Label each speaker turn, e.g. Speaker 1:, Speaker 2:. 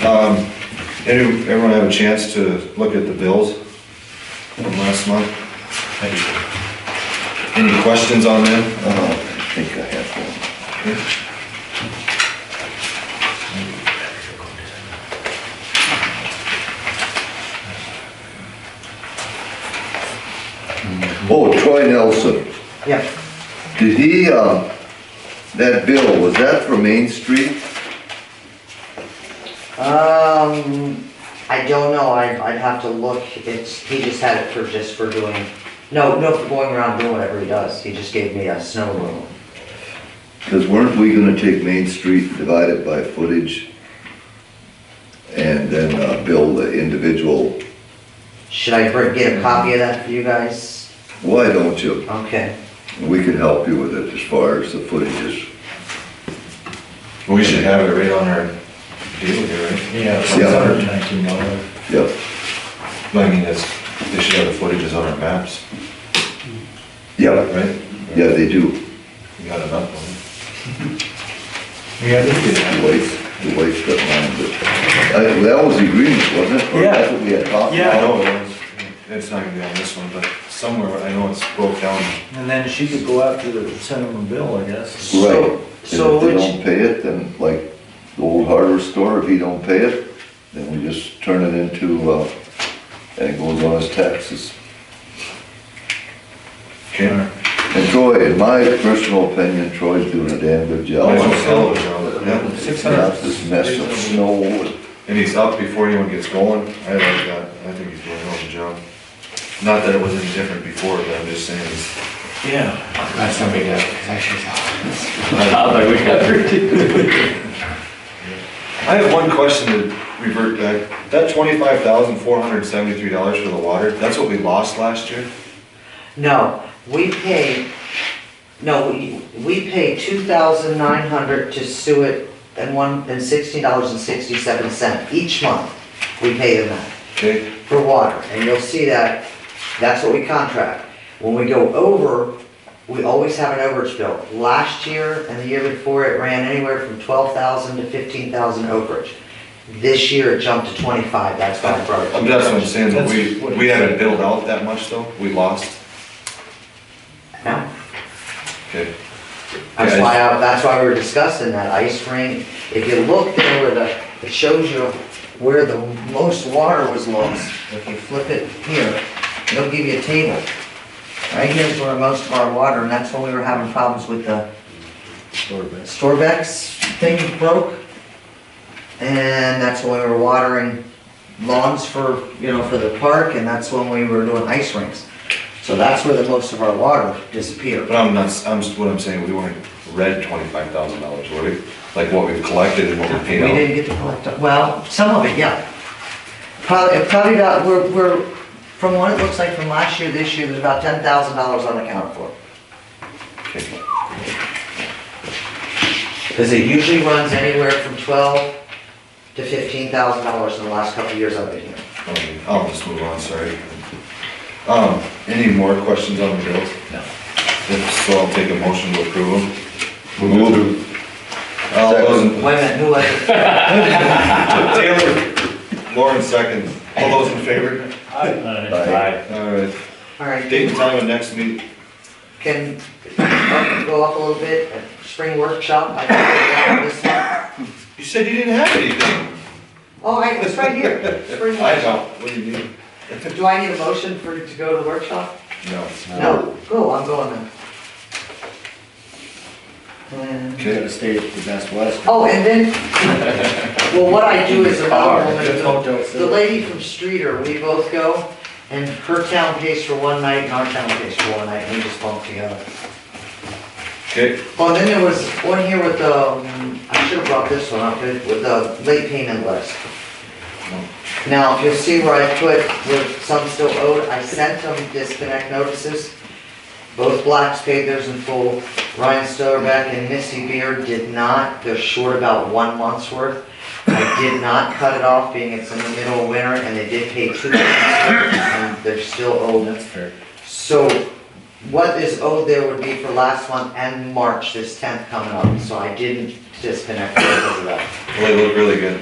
Speaker 1: Um, any- Everyone have a chance to look at the bills from last month? Any questions on them?
Speaker 2: Oh, I think I have one. Oh, Troy Nelson,
Speaker 3: Yeah,
Speaker 2: did he, uh, that bill, was that for Main Street?
Speaker 3: um, I don't know, I, I'd have to look, it's, he just had it for, just for doing, no, no, for going around doing whatever he does, he just gave me a snow room.
Speaker 2: Because weren't we gonna take Main Street, divide it by footage? And then, uh, bill the individual,
Speaker 3: Should I bring, get a copy of that for you guys?
Speaker 2: why don't you?
Speaker 3: Okay,
Speaker 2: We can help you with it as far as the footage is.
Speaker 1: We should have it right on our deal here, right?
Speaker 4: Yeah, it's
Speaker 2: Yeah.
Speaker 4: under nineteen dollars.
Speaker 2: Yep,
Speaker 1: I mean, that's, they should have the footages on our maps,
Speaker 2: yep,
Speaker 1: right?
Speaker 2: yeah, they do.
Speaker 1: You got enough of
Speaker 4: Yeah, they do that.
Speaker 2: The waste, the waste got lined, but, uh, that was the agreement, wasn't it? Or
Speaker 4: Yeah.
Speaker 2: That's what we had talked
Speaker 1: them.
Speaker 4: Yeah.
Speaker 1: I
Speaker 2: about.
Speaker 1: know, it's- it's not gonna be on this one, but somewhere, I know it's broke down.
Speaker 4: And then she could go after the, send them a bill, I guess.
Speaker 2: Right, and
Speaker 3: So-
Speaker 2: if they
Speaker 3: so
Speaker 2: don't pay it, then like the old hardware store, if he don't pay it, then we just turn it into, uh, and it goes on his taxes.
Speaker 1: Okay.
Speaker 2: And Troy, in my personal opinion, Troy's doing a damn good job.
Speaker 1: Might as well sell it, you know, yeah.
Speaker 2: Not this mess of snow and
Speaker 1: And he's up before anyone gets going, I like that, I think he's doing an awesome job. Not that it was any different before, but I'm just saying, it's,
Speaker 4: Yeah.
Speaker 5: That's somebody that, I should tell.
Speaker 1: I have one question to revert back. That twenty-five thousand, four hundred and seventy-three dollars for the water, that's what we lost last year?
Speaker 3: no, we pay, no, we, we pay two thousand nine hundred to Suet and one, and sixteen dollars and sixty-seven cent each month, we pay them that.
Speaker 1: Okay,
Speaker 3: for water, and you'll see that, that's what we contract. When we go over, we always have an overage bill. Last year and the year before, it ran anywhere from twelve thousand to fifteen thousand overage. This year, it jumped to twenty-five, that's why I brought it.
Speaker 1: I'm- that's what I'm saying, that we,
Speaker 4: That's what-
Speaker 1: we haven't billed out that much though, we lost,
Speaker 3: No?
Speaker 1: okay?
Speaker 3: That's
Speaker 1: Yeah,
Speaker 3: why, I- that's why we were discussing that ice rink. If you look there where the, it shows you where the most water was lost. If you flip it here, it'll give you a table. Right here's where most of our water, and that's when we were having problems with the Storbex thing broke. And that's when we were watering lawns for, you know, for the park, and that's when we were doing ice rinks. So that's where the most of our water disappeared.
Speaker 1: But I'm not, s- Um, I'm, s- what I'm saying, we weren't red twenty-five thousand dollars, were we? Like what we've collected and what we
Speaker 3: We
Speaker 1: paid out?
Speaker 3: didn't get to collect, it. well, some of it, yeah. Probably, probably about, we're, we're, from what it looks like from last year, this year, there's about ten thousand dollars unaccounted for.
Speaker 1: Okay.
Speaker 3: Cause it usually runs anywhere from twelve to fifteen thousand dollars in the last couple of years I've been here.
Speaker 1: Okay, Um, I'll just move on, sorry. Um, any more questions on the bills?
Speaker 4: No.
Speaker 1: If So I'll take a motion to approve them.
Speaker 2: Move
Speaker 1: All those in-
Speaker 3: Wait a minute, who was it?
Speaker 1: Taylor, Lauren second. All those in favor?
Speaker 2: Aye.
Speaker 1: All right.
Speaker 3: All right,
Speaker 1: Date and time of next meet,
Speaker 3: can, uh, go up a little bit, uh, spring workshop, I can put it down this month.
Speaker 1: you said you didn't have anything.
Speaker 3: Oh, I, it's right here, spring
Speaker 1: I
Speaker 3: workshop.
Speaker 1: know, what do you mean?
Speaker 3: Do I need a motion for, to go to the workshop?
Speaker 1: No.
Speaker 3: No, cool, I'm going then. And-
Speaker 1: Okay.
Speaker 4: Gotta stay at the Best Western.
Speaker 3: Oh, and then, well, what I do is another woman,
Speaker 4: Hotel
Speaker 3: the
Speaker 4: still.
Speaker 3: lady from Streeter, we both go, and her town pays for one night, and our town pays for one night, and we just bunk together.
Speaker 1: Okay,
Speaker 3: Oh, and then there was one here with the, um, I should have brought this one up, it- with the late payment list. Now, if you'll see where I put, with some still owed, I sent them disconnect notices. Both Blacks paid theirs in full. Ryan Stoverback and Missy Beard did not. They're short about one month's worth. I did not cut it off, being it's in the middle of winter, and they did pay two months' worth, and they're still owed.
Speaker 4: That's fair.
Speaker 3: So what is owed there would be for last month and March, this tenth coming up, so I didn't disconnect those of that.
Speaker 1: well, they look really good.